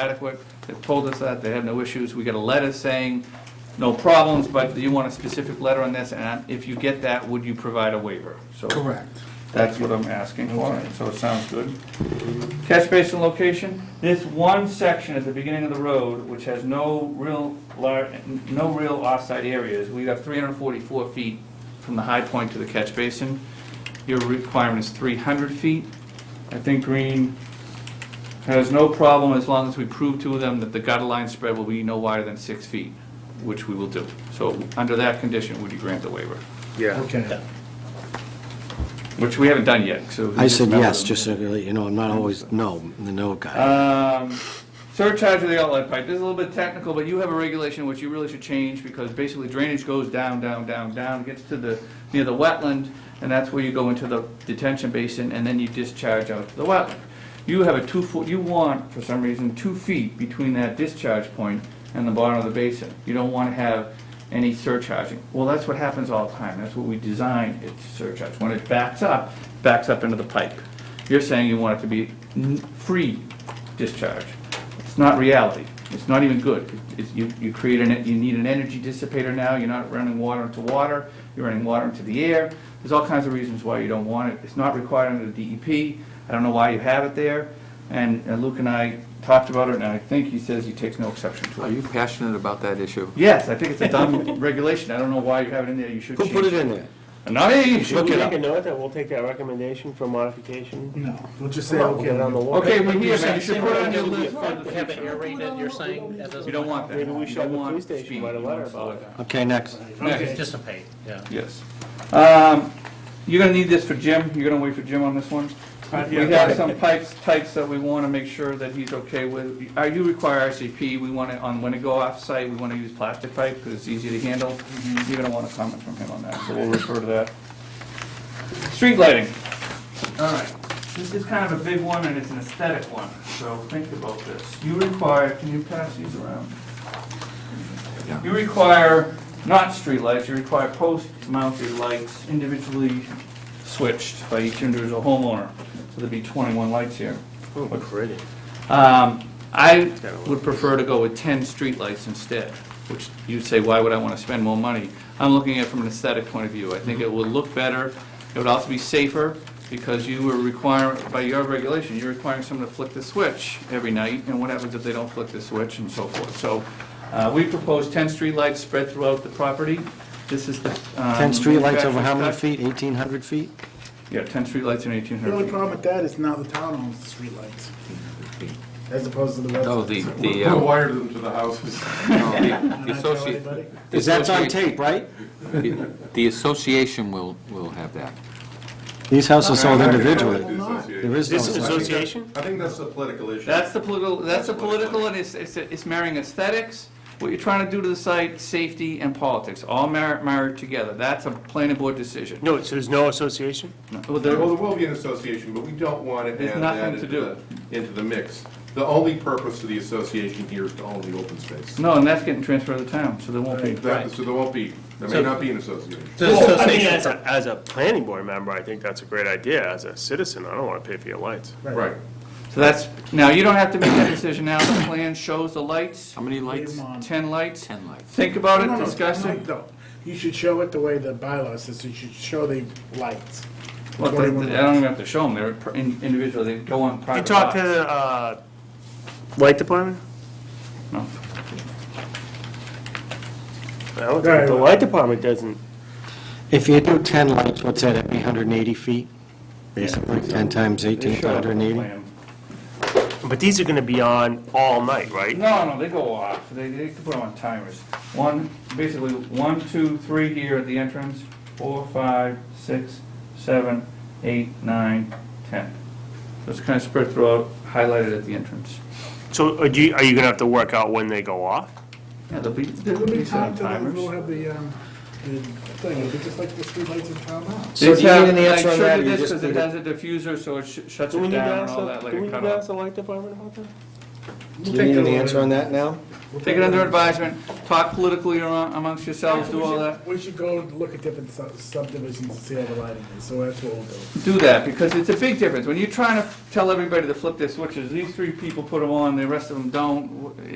adequate. They've told us that, they have no issues. We got a letter saying, no problems, but you want a specific letter on this, and if you get that, would you provide a waiver? So Correct. That's what I'm asking for, so it sounds good. Catch basin location, this one section at the beginning of the road, which has no real, lar- no real offsite areas, we have 344 feet from the high point to the catch basin. Your requirement is 300 feet. I think Green has no problem as long as we prove to them that the gutter line spread will be no wider than six feet, which we will do. So under that condition, would you grant the waiver? Yeah. Okay. Which we haven't done yet, so. we I said met with yes, them. just so you know, you know, I'm not always, no, the no guy. Um, surcharge of the outlet pipe, this is a little bit technical, but you have a regulation which you really should change, because basically drainage goes down, down, down, down, gets to the, near the wetland, and that's where you go into the detention basin, and then you discharge out to the wetland. You have a two foot, you want, for some reason, two feet between that discharge point and the bottom of the basin. You don't wanna have any surcharging. Well, that's what happens all the time, that's what we design it to surcharge. When it backs up, backs up into the pipe. You're saying you want it to be n- free discharge. It's not reality. It's not even good. It's, you, you create an, you need an energy dissipator now, you're not running water into water, you're running water into the air. There's all kinds of reasons why you don't want it. It's not required under the DEP. I don't know why you have it there. And and Luke and I talked about it, and I think he says he takes no exception to Are it. you passionate about that issue? Yes, I think it's a dumb regulation. I don't know why you have it in there. You should Who change it. put it in there? Not me, you should Should look we it make up. a note that we'll take that recommendation for modification? No, we'll just say, Say, we'll okay. get it on the wall. Okay, we hear that. You should put it on your list for the Have it future. aerated, you're saying, that doesn't. You don't want that. Maybe we You should have the want police station speed. write a You letter want slow about down. Okay, next. Okay. Dissipate, yeah. Yes. Um, You're gonna need this for Jim, you're gonna wait for Jim on this one? Uh, We yeah. have some pipes, types that we wanna make sure that he's okay with. Uh, You require RCP, we wanna, on when to go off-site, we wanna use plastic pipe, because it's easy to handle. You're gonna want a comment from him on that, so we'll refer to that. Street lighting. All right, this is kind of a big one, and it's an aesthetic one, so think about this. You require, can you pass these around? You require not streetlights, you require post-mounted lights individually switched by each individual homeowner. So there'd be 21 lights here. Look pretty. Um, I would prefer to go with 10 streetlights instead, which you'd say, why would I want to spend more money? I'm looking at it from an aesthetic point of view. I think it would look better, it would also be safer, because you were requiring, by your regulation, you're requiring someone to flick the switch every night, and what happens if they don't flick the switch and so forth? So uh, we propose 10 streetlights spread throughout the property. This is the. um, 10 streetlights over how many manufacturer's cut. feet? 1,800 feet? Yeah, 10 streetlights and 1,800 feet. The only problem with that is now the town owns the streetlights, as opposed to the residents. No, Oh, the, the, Who uh, wired them to the houses? no, Not the tell associate- anybody. the Is that on associate- tape, right? the- The association will, will have that. These houses sold Well, individually. not. Oh, There is no This is association. association? I think that's a political issue. That's the political, that's the political, and it's, it's, it's marrying aesthetics, what you're trying to do to the site, safety and politics, all mar- married together. That's a planning board decision. No, so there's no association? Well, Well, there there- will be an association, but we don't want to There's add that nothing to into the, into the mix. The only purpose of the association here is to own the open space. No, and that's getting transferred to the town, so there won't be. That- So there won't be, there may not be an association. Well, I mean, as a, as a planning board member, I think that's a great idea. As a citizen, I don't want to pay for your lights. Right. So that's, now, you don't have to make that decision now, the plan shows the lights, How many lights? Leave 'em on. ten lights. Ten lights. Think about No, no, it, no, discuss no, it. no. You should show it the way the bylaw says, you should show the lights. Well, they- Twenty-one they- I don't even have to show them, they're pr- in- individual, they go on You private talk to lots. the, uh, light department? No. I don't think The light department doesn't. If you do 10 lights, what's that, every 180 feet? Basically, 10 times They 18, show it on the 180? plan. But these are going to be on all night, right? No, no, they go off, they, they can put them on timers. One, basically, one, two, three here at the entrance, four, five, six, seven, eight, nine, ten. So it's kind of spread throughout, highlighted at the entrance. So are you, are you going to have to work out when they go off? Yeah, there'll be, There there'll will be be some time to, like, we'll timers. have the, um, the thing, it'll be just like the streetlights in town now. So do you need an answer on that, or you Because just it need a- has a diffuser, so it sh- shuts it down and all that like a cutoff. light department about that? Do you need an answer on that now? Take it under advisement, talk politically amo- amongst yourselves, do all that. We should go look at different sub- subdivisions to see how the lighting is, so that's what we'll do. Do that, because it's a big difference. When you're trying to tell everybody to flip their switches, these three people put them on, the rest of them don't,